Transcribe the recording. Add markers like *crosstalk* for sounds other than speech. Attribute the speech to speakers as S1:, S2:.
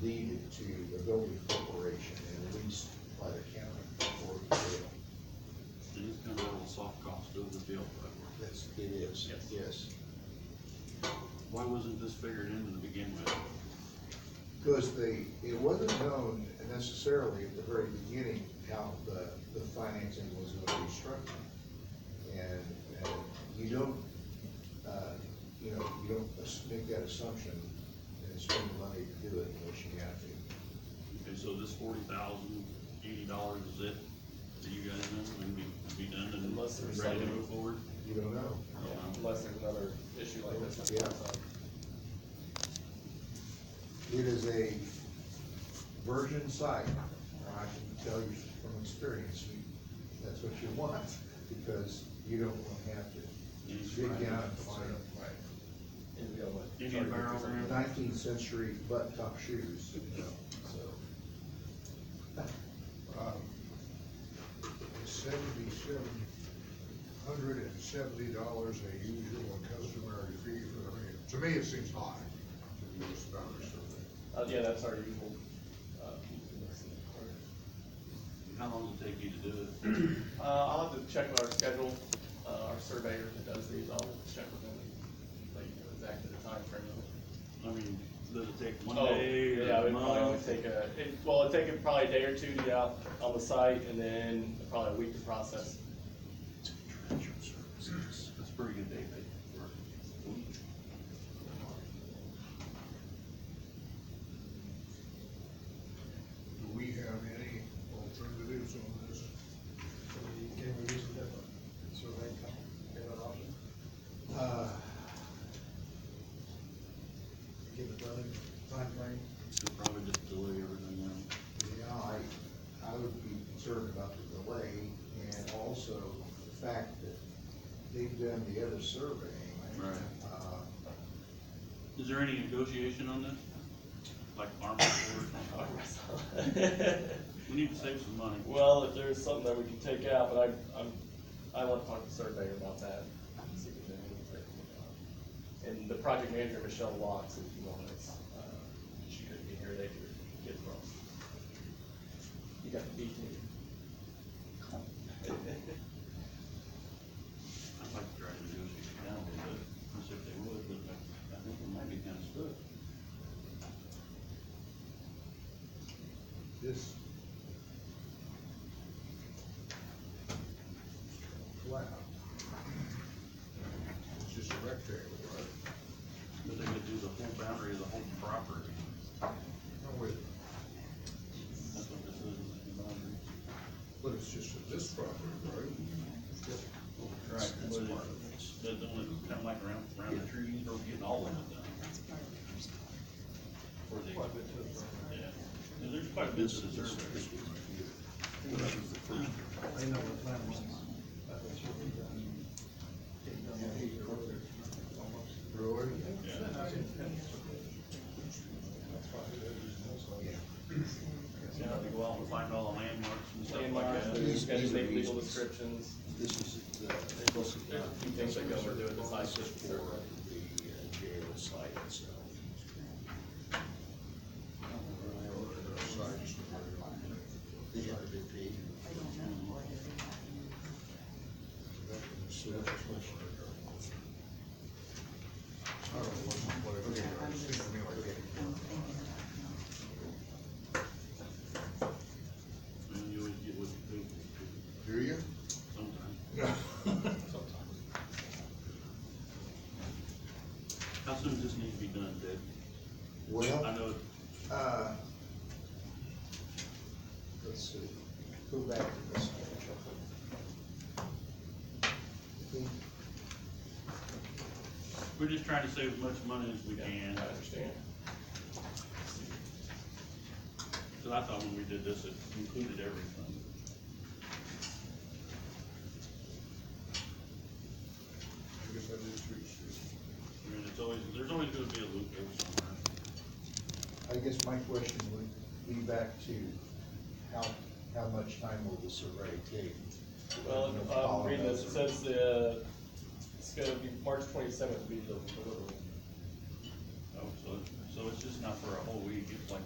S1: deeded to the building corporation and leased by the county for the jail.
S2: It's kind of a little soft cost of the deal, but
S1: That's, it is,
S2: Yes.
S1: yes.
S2: why wasn't this figured in to begin with?
S1: Because the, it wasn't known necessarily at the very beginning how the, the financing was gonna be structured. And, and you don't, uh, you know, you don't as- make that assumption and spend the money to do it unless you have to.
S2: Okay, so this forty thousand, eighty dollars is it? Do you guys know, when we, be done and
S3: Unless there's
S2: ready to
S3: something-
S2: move forward?
S1: You don't know.
S3: Unless there's another issue like this. that
S1: Yeah.
S3: pops up.
S1: It is a virgin site, and I can tell you from experience, you- that's what you want, because you don't wanna have to
S2: Yes,
S1: dig
S2: right.
S1: down and find
S3: And we got what?
S2: You need a barrel there?
S1: nineteenth century butt top shoes, you know, so.
S4: um, seventy-seven hundred and seventy dollars a usual and customary fee for the man. To me, it seems high to do this about a survey.
S3: Uh, yeah, that's our usual, uh,
S2: How long does it take you to do it?
S3: uh, I'll have to check with our schedule, uh, our surveyor that does these, I'll check with him, and let you know exactly the timeframe. of it.
S2: I mean, does it take one
S3: Oh,
S2: day,
S3: Yeah,
S2: a
S3: it'd probably only
S2: month?
S3: take a, it, well, it'd take it probably a day or two to get out on the site, and then probably a week to *laughs* process.
S2: That's a pretty good day, babe.
S4: Do we have any alternatives on this?
S1: Uh,
S5: give it another timeframe.
S2: Should probably just delay everything now.
S1: you know, I, I would be concerned about the delay and also the fact that they've done the other surveying.
S2: Right.
S1: Uh,
S2: Is there any negotiation on this? Like armor or We need to save some money.
S3: Well, if there's something that we can take out, but I, I'm, I want to talk to the surveyor about that. see if there's anything we can take out. And the project manager, Michelle Watts, if you want us, uh, she couldn't be here, they could get from. You got the beat me.
S2: I'd like to try to negotiate down a little bit, and see if uh, they would, but I- I think it might be kind of split.
S4: This flat. It's just a rectangle, right?
S2: But they could do the whole boundary of the whole property.
S4: No, wait,
S2: That's what this is, is the boundary.
S4: but it's just for this property, right?
S2: Right. But then it's kind of like around, around the trees, or getting all of it done. Or they- Yeah, And there's quite a bit to the survey.
S5: I know what plan was. That was what we done. Getting done with the work there. Almost.
S4: Really?
S2: Yeah. You know, they go out and find all the landmarks and stuff
S3: Landmarks,
S2: like that.
S3: there's got to make legal descriptions.
S1: This is the.
S2: uh,
S3: There's a few things that go into it besides just the
S1: For
S3: survey.
S1: the uh, jail site itself. The RDP.
S4: I don't know what's the play. It seems to me like that.
S2: And you always get what you pay
S4: Do you?
S2: for sometimes. How soon does this need to be done, Dave? I
S1: Well,
S2: know,
S1: uh, let's see, go back to this. one. I think
S2: we're just trying to save as much money as we can,
S3: I understand.
S2: cause I thought when we did this, it included everything.
S4: I guess I did too, Steve.
S2: I mean, it's always, there's always gonna be a loophole somewhere.
S1: I guess my question would be back to how, how much time will the survey take?
S3: Well, um, if I'm reading this, it says the, it's gonna be March twenty-seventh will be the deliverable.
S2: Oh, so, so it's just not for a whole week, it's like